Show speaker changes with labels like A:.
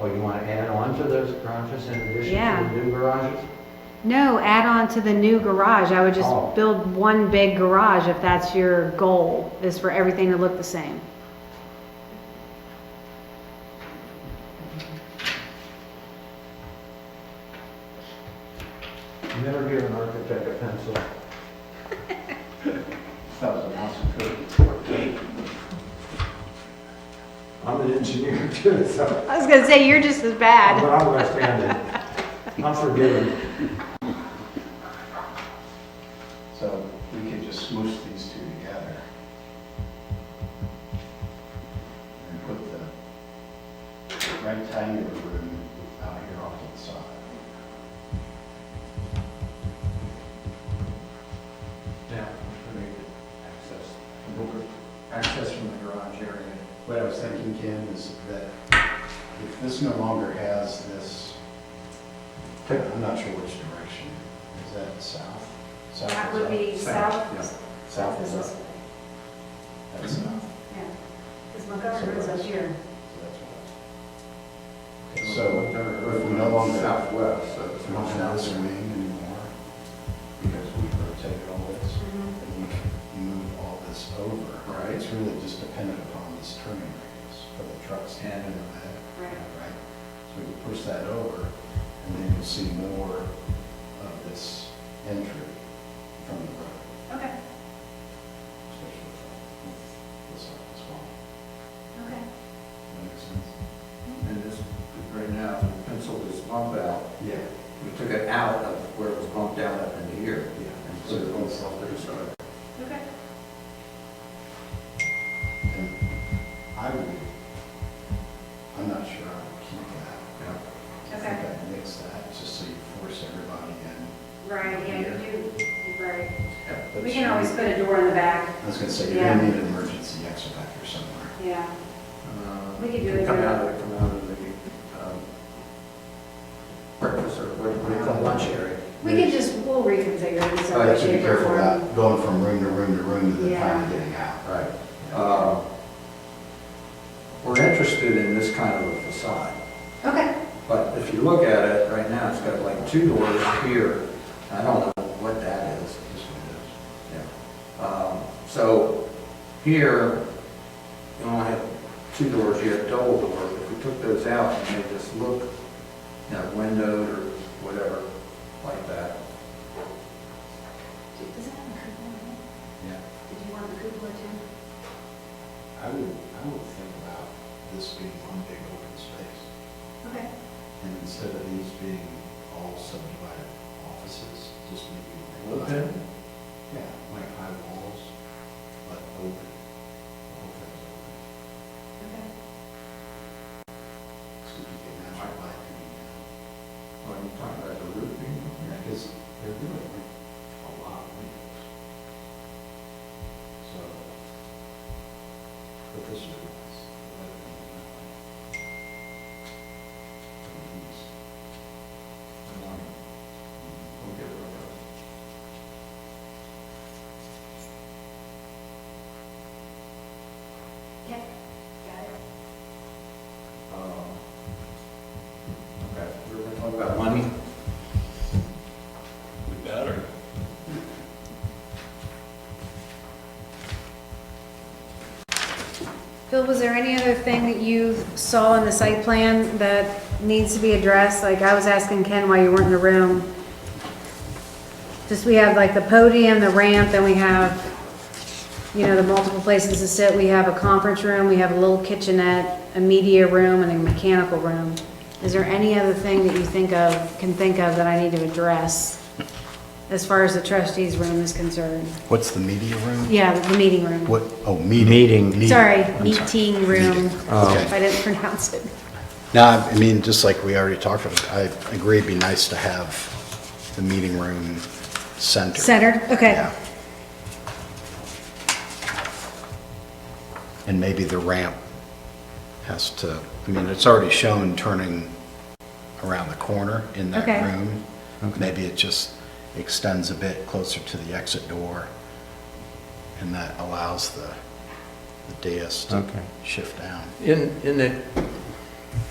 A: Oh, you want to add on to those garages in addition
B: Yeah.
A: to the new garages?
B: No, add on to the new garage. I would just
A: Oh.
B: build one big garage if that's your goal, is for everything to look the same.
A: Never give an architect a pencil.
C: That was an awesome code.
A: I'm an engineer too, so,
B: I was gonna say, you're just as
A: but
B: bad.
A: I'm left-handed. I'm forgiven.
C: So we could just smoosh these two together. And put the rectangular room out here off to the side.
A: Yeah.
C: For the access, the book- access from the garage area. What I was thinking, Ken, is that if this no longer has this, I'm not sure which direction, is that south? South
D: That
C: is
D: would
C: up?
D: be
C: yeah.
D: south. Mm-hmm.
C: South
D: Is
C: is
D: this
C: up,
D: way,
C: that's south.
D: yeah. Because Montgomery Road's up here.
C: So, if we no longer have
E: Southwest, so it's
C: not
E: not
C: have this
E: southwest.
C: wing anymore, because we rotated all this, and you can move all this over.
E: Right.
C: It's really just dependent upon this turning radius for the trucks in and out.
D: Right.
C: Right? So we push that over, and then you'll see more of this entry from the road.
D: Okay,
C: especially with this one as well.
D: okay.
C: That makes sense?
E: And this, right now, we penciled this bump out,
C: Yeah.
E: we took it out of where it was bumped out up into here.
C: Yeah.
E: And put it on the south end side.
D: Okay.
C: And I would, I'm not sure I would keep that.
E: Yeah.
C: I think I'd mix that, just so you force everybody in.
D: Right, yeah, you do, you're right.
C: But
D: We can
C: you-
D: always put a door in the back,
C: I was gonna say, you're gonna
D: Yeah.
C: need an emergency exit back here somewhere.
D: yeah.
E: Uh,
D: We could do it
E: Come
D: there.
E: out of, the- come out of the, um, breakfast or what do you call it, lunch area.
D: We can just, we'll reconfigure it. so
E: Oh,
C: I
E: yeah,
C: have
D: it's
C: to be
D: shape or
C: careful
D: form.
C: about going from room to room to room to then
D: Yeah.
C: finally getting out.
E: Right. Uh, We're interested in this kind of a facade.
D: Okay,
E: But if you look at it, right now, it's got like two doors here. I don't know what that is.
C: This one
E: Yeah. Um, So here, you only have two doors, you have double door. If we took those out and made this look, you know, windowed or whatever, like that.
D: does that have a cupola? in it?
C: does. Yeah.
D: Did you want the cupola too?
C: I would, I would think about this being one big open space.
D: Okay,
C: And instead of these being all subdivided offices, just maybe. like-
E: Open?
C: Yeah, like high walls, but open. The whole thing's open.
D: okay.
C: So you get natural light coming
E: What are you Oh, talking about, the roofing?
C: in. Yeah, because they're doing like a lot of windows. So, but this is. let it be that way. And these,
E: We'll get rid of those.
D: Yep, got it.
E: Um, Okay, we're gonna talk about money.
F: We better.
B: Phil, was there any other thing that you saw in the site plan that needs to be addressed? Like, I was asking Ken why you weren't in the room. Just, we have like the podium, the ramp, then we have, you know, the multiple places to sit. We have a conference room, we have a little kitchenette, a media room, and a mechanical room. Is there any other thing that you think of, can think of that I need to address as far as the trustees' room is concerned?
C: What's the media room?
B: Yeah, the meeting room.
C: What, oh, meeting.
A: Meeting.
B: Sorry,
C: I'm sorry.
B: meeting room,
C: Meeting.
B: if I didn't pronounce it.
C: No, I mean, just like we already talked about, I agree it'd be nice to have the meeting room centered.
B: Centered, okay.
C: Yeah. And maybe the ramp has to, I mean, it's already shown turning around the corner in that
B: Okay.
C: room. Maybe it just extends a bit closer to the exit door, and that allows the the dais to
A: Okay.
C: shift down.
F: In, in the